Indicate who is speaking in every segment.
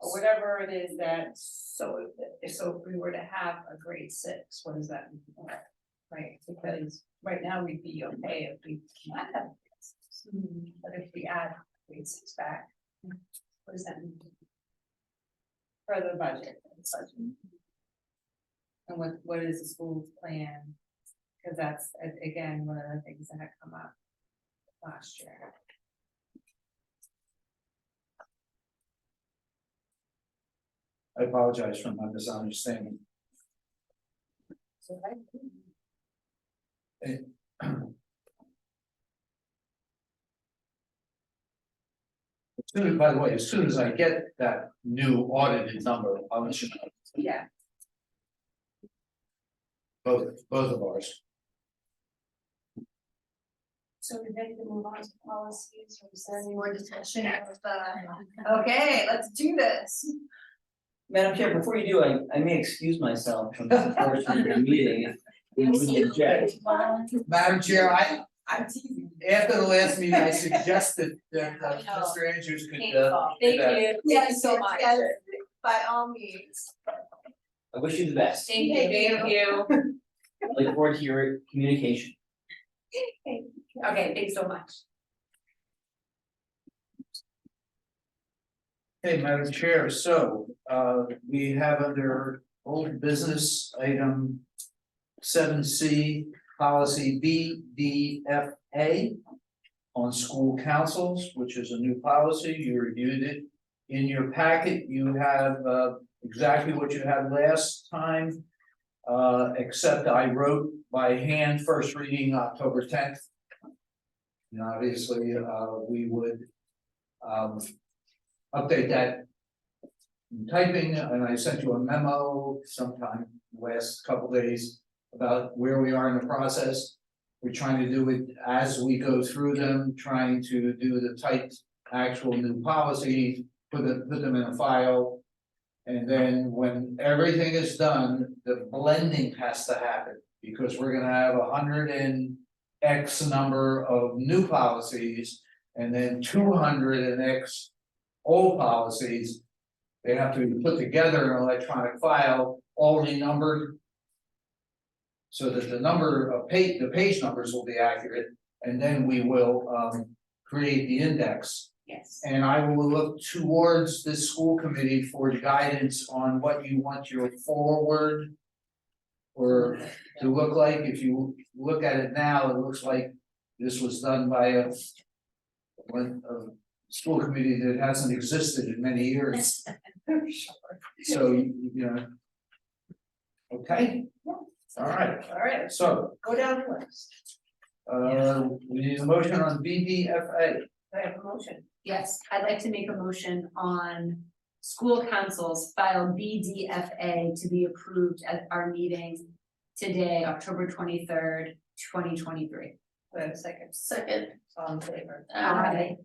Speaker 1: or whatever it is that, so if, so if we were to have a grade six, what does that mean? Right, because right now we'd be okay if we cannot have. grade six. But if we add grade six back, what does that mean? For the budget, the budget. And what, what is the school's plan? Cause that's, a- again, one of the things that had come up last year.
Speaker 2: I apologize for my misunderstanding.
Speaker 1: So I,
Speaker 2: As soon as- by the way, as soon as I get that new audited number, I'll let you know,
Speaker 1: yeah,
Speaker 2: both, both of ours.
Speaker 1: So we're ready to move on to policies, or is there any
Speaker 3: more discussion of the.
Speaker 1: Okay, let's do this.
Speaker 4: Madam Chair, before you do, I, I may excuse myself from the portion of the meeting. if you wouldn't object.
Speaker 2: Madam Chair, I,
Speaker 1: I'm teasing.
Speaker 2: after the last meeting, I suggested that
Speaker 3: uh, Mr.
Speaker 2: Andrews uh,
Speaker 3: Thank you.
Speaker 1: Yes, so much.
Speaker 3: By all means.
Speaker 4: I wish you the best,
Speaker 3: Thank you.
Speaker 1: Thank you.
Speaker 4: I look forward to your communication.
Speaker 1: Okay, thanks so much.
Speaker 2: Hey, Madam Chair, so, uh, we have under old business item seven C, policy B D F A on school councils, which is a new policy, you reviewed it. In your packet, you have, uh, exactly what you had last time, uh, except I wrote by hand, first reading October tenth. And obviously, uh, we would, um, update that. in Typing, and I sent you a memo sometime last couple days about where we are in the process. We're trying to do it as we go through them, trying to do the typed actual new policies, put them, put them in a file. And then when everything is done, the blending has to happen, because we're gonna have a hundred and X number of new policies. And then two hundred and X old policies. They have to be put together in an electronic file, all renumbered. So that the number of page, the page numbers will be accurate, and then we will um create the index.
Speaker 1: Yes.
Speaker 2: And I will look towards the school committee for guidance on what you want your forward. Or to look like, if you look at it now, it looks like this was done by a. One of school committee that hasn't existed in many years, so you you know. Okay, all right,
Speaker 1: All right,
Speaker 2: so
Speaker 1: go down the list.
Speaker 2: uh we need a motion on BDFA.
Speaker 1: Do I have a motion?
Speaker 3: Yes, I'd like to make a motion on school councils file BDFA to be approved at our meeting today, October twenty-third, twenty twenty-three.
Speaker 1: Do I have a second?
Speaker 3: Second.
Speaker 1: All in favor?
Speaker 3: Aye.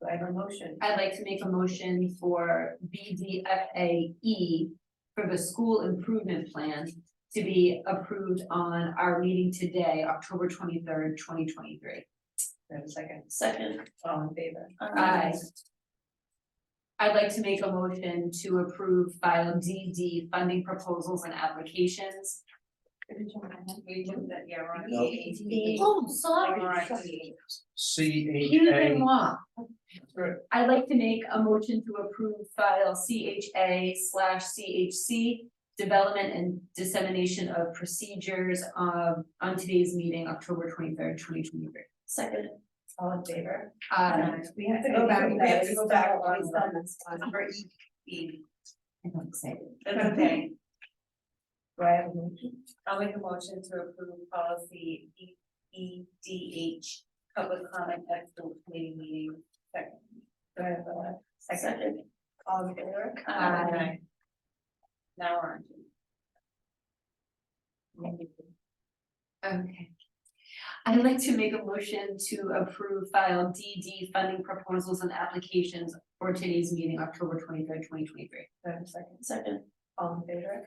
Speaker 1: Do I have a motion?
Speaker 3: I'd like to make a motion for BDFAE E for the school improvement plan to be approved on our meeting today, October twenty-third, twenty
Speaker 1: Do
Speaker 3: twenty-three.
Speaker 1: I have a second?
Speaker 3: Second.
Speaker 1: All in favor?
Speaker 3: Aye. I'd like to make a motion to approve file DD funding proposals and applications.
Speaker 1: We do that, yeah, we're on. E.
Speaker 2: No.
Speaker 3: Oh,
Speaker 1: All right.
Speaker 2: C H
Speaker 3: Excusez
Speaker 2: A.
Speaker 3: moi. I'd like to make a motion to approve file CHA slash CHC. Development and dissemination of procedures um, on today's meeting, October twenty-third, twenty twenty-three. Second.
Speaker 1: All in favor?
Speaker 3: Uh,
Speaker 1: We have
Speaker 3: to go back- we have to go back a lot.
Speaker 1: Number E. E.
Speaker 3: I'm excited.
Speaker 1: That's okay. Do I have a motion? I'll make a motion to approve policy E E D H, public comment at school committee meeting. Second. Do I have a second? All in favor?
Speaker 3: Aye.
Speaker 1: Now we're on to.
Speaker 3: Okay. I'd like to make a motion to approve file DD funding proposals and applications for today's meeting, October twenty-third, twenty twenty-three.
Speaker 1: Do I have a second? Second. All in favor?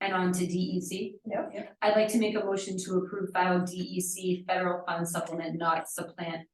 Speaker 3: And on to E DEC.
Speaker 1: Yep.
Speaker 3: E I'd like to make a motion to approve file DEC federal fund supplement not supplant